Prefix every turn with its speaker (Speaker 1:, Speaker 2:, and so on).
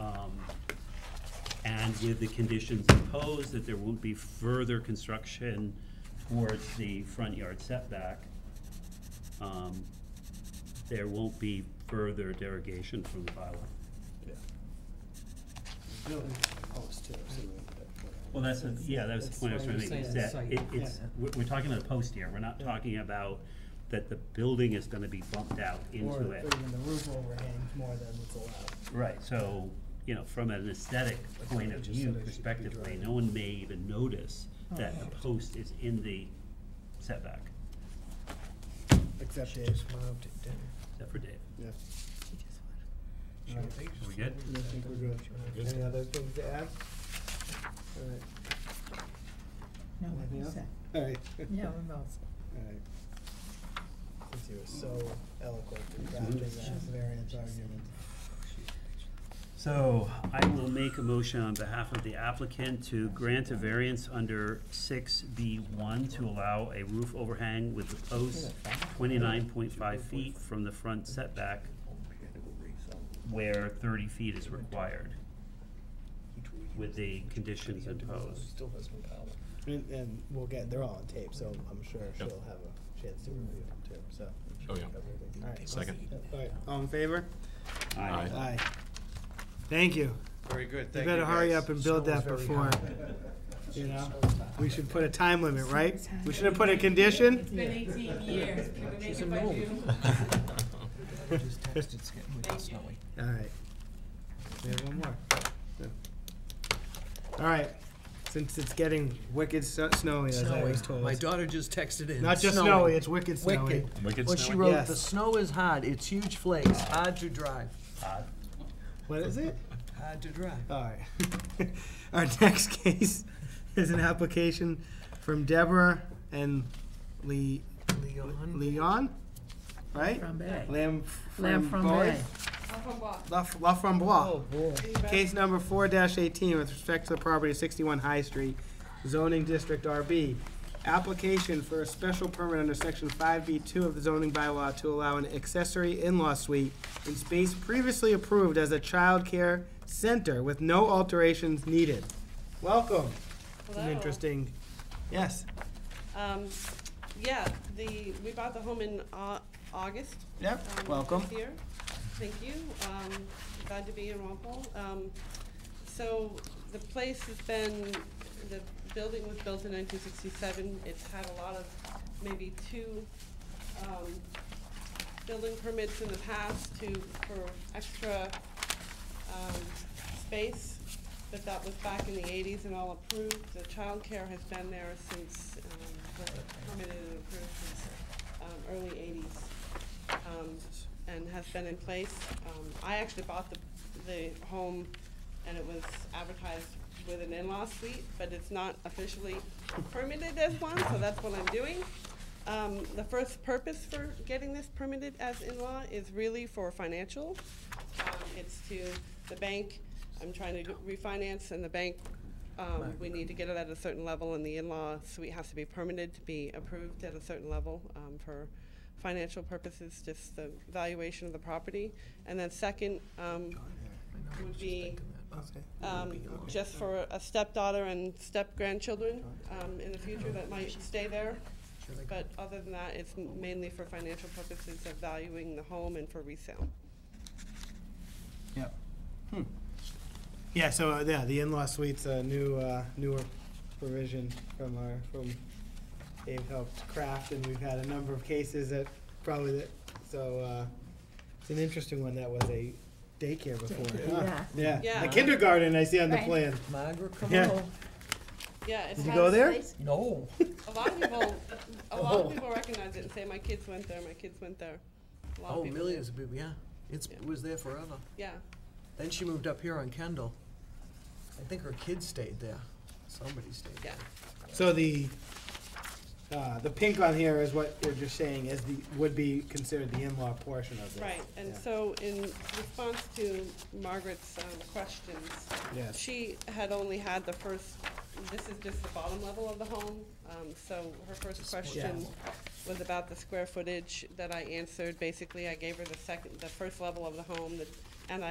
Speaker 1: um, and with the conditions imposed that there won't be further construction towards the front yard setback. um, There won't be further derogation from the bylaw.
Speaker 2: Yeah.
Speaker 3: Building post too, so we-
Speaker 1: Well, that's, a- yeah, that was the
Speaker 3: That's
Speaker 1: point I was
Speaker 3: why
Speaker 1: trying to
Speaker 3: you're
Speaker 1: make, is
Speaker 3: saying
Speaker 1: that
Speaker 3: site,
Speaker 1: it- it's,
Speaker 3: yeah.
Speaker 1: we're, we're talking about a post here, we're not
Speaker 3: Yeah.
Speaker 1: talking about that the building is gonna be bumped out
Speaker 3: Or
Speaker 1: into
Speaker 3: or
Speaker 1: it.
Speaker 3: even the roof overhang more than what's allowed.
Speaker 1: Right, so, you know, from an aesthetic
Speaker 3: That's what
Speaker 1: point
Speaker 3: I
Speaker 1: of
Speaker 3: just
Speaker 1: view
Speaker 3: said I should be
Speaker 1: perspectively,
Speaker 3: driving.
Speaker 1: no one may even notice that the
Speaker 3: Oh.
Speaker 1: post is in the setback,
Speaker 3: Except
Speaker 4: She
Speaker 3: Dave.
Speaker 4: just moved it, didn't
Speaker 1: except for Dave.
Speaker 2: Yeah.
Speaker 4: she?
Speaker 3: Alright.
Speaker 1: Are we good?
Speaker 3: I think we're good.
Speaker 2: Yes.
Speaker 3: Any other things to add? All right,
Speaker 4: No,
Speaker 3: Anything
Speaker 4: I'm
Speaker 3: else?
Speaker 4: set.
Speaker 3: all right.
Speaker 4: No, I'm all set.
Speaker 3: All right. Since you were so eloquent in drafting that variance argument.
Speaker 1: So I will make a motion on behalf of the applicant to grant a variance under six B one to allow a roof overhang with the post twenty-nine point five feet from the front setback where thirty feet is required with the conditions imposed.
Speaker 3: And, and we'll get, they're all on tape, so I'm sure she'll have a chance to review them too, so.
Speaker 5: Oh, yeah.
Speaker 3: All right.
Speaker 5: Second.
Speaker 3: All right, all in favor?
Speaker 5: Aye.
Speaker 3: Aye. Thank you.
Speaker 2: Very good,
Speaker 3: You
Speaker 2: thank you
Speaker 3: better hurry
Speaker 2: guys.
Speaker 3: up and build that before, you know? We should put a time limit, right? We should have put a condition?
Speaker 6: It's been eighteen years, can we make it by June?
Speaker 4: Just texted, it's getting really snowy.
Speaker 3: All right. We have one more. No. All right, since it's getting wicked so- snowy, as I always told
Speaker 4: My
Speaker 3: us.
Speaker 4: daughter just texted in.
Speaker 3: Not just snowy, it's wicked snowy.
Speaker 4: Wicked.
Speaker 5: Wicked
Speaker 4: Well, she
Speaker 5: snowy.
Speaker 4: wrote,
Speaker 3: Yes.
Speaker 4: the snow is hard, it's huge flakes, hard to drive,
Speaker 1: Todd?
Speaker 3: What is it?
Speaker 4: hard to drive.
Speaker 3: All right. Our next case is an application from Deborah and Le-
Speaker 4: Leon
Speaker 3: Leon, right?
Speaker 4: Frambe.
Speaker 3: Lam.
Speaker 4: Lamb
Speaker 3: Framboy?
Speaker 4: Frambe.
Speaker 6: Off of what?
Speaker 3: La La
Speaker 4: Oh,
Speaker 3: Framboise.
Speaker 4: boy.
Speaker 3: Case number four eighteen with respect to the property of sixty-one High Street, zoning district RB. Application for a special permit under section five B two of the zoning bylaw to allow an accessory in-law suite in space previously approved as a childcare center with no alterations needed. Welcome. It's an
Speaker 6: Hello.
Speaker 3: interesting, yes,
Speaker 6: Um, yeah, the, we bought the home in Au- August.
Speaker 3: Yep,
Speaker 6: um, of
Speaker 3: welcome.
Speaker 6: This year, thank you, um, glad to be in Walpole. Um, so the place has been, the building was built in nineteen sixty-seven, it's had a lot of, maybe two, um, building permits in the past to, for extra, um, space, but that was back in the eighties and all approved. The childcare has been there since, um, the permitted and approved since, um, early eighties, um, and has been in place. Um, I actually bought the, the home and it was advertised with an in-law suite, but it's not officially permitted as one, so that's what I'm doing. Um, the first purpose for getting this permitted as in-law is really for financial. Um, it's to the bank, I'm trying to refinance and the bank, um, we need to get it at a certain level and the in-law suite has to be permitted to be approved at a certain level, um, for financial purposes, just the valuation of the property. And then second, um, would be, um, just for a stepdaughter and step-grandchildren, um, in the future that might stay there. But other than that, it's mainly for financial purposes of valuing the home and for resale.
Speaker 3: yep. Hmm. Yeah, so, uh, yeah, the in-law suite's a new, uh, newer provision from our, from Dave helped craft, and we've had a number of cases that probably, that so, uh, it's an interesting one that was a daycare before. huh? Yeah.
Speaker 6: Yeah.
Speaker 3: A kindergarten I see on the
Speaker 7: Right.
Speaker 3: plan.
Speaker 4: Margaret, come
Speaker 3: Yeah.
Speaker 4: on. Oh,
Speaker 6: Yeah, it's.
Speaker 3: Did you go there?
Speaker 4: No.
Speaker 6: A lot of people, a lot
Speaker 3: Oh.
Speaker 6: of people recognize it and say, my kids went there, my kids went there. A lot of
Speaker 4: Oh,
Speaker 6: people do.
Speaker 4: millions of people, yeah. It's, it was there forever.
Speaker 6: Yeah,
Speaker 4: Then she moved up here on Kendall. I think her kids stayed there. Somebody stayed
Speaker 6: yeah,
Speaker 4: there.
Speaker 3: So the, uh, the pink on here is what you're just saying is the, would be considered the in-law portion of this.
Speaker 6: right. And
Speaker 3: Yeah.
Speaker 6: so in response to Margaret's, um, questions,
Speaker 3: Yes.
Speaker 6: She had only had the first, this is just the bottom level of the home, um, so her first question was about the square footage that I answered. Basically, I gave her the second, the first level of the home, that- and I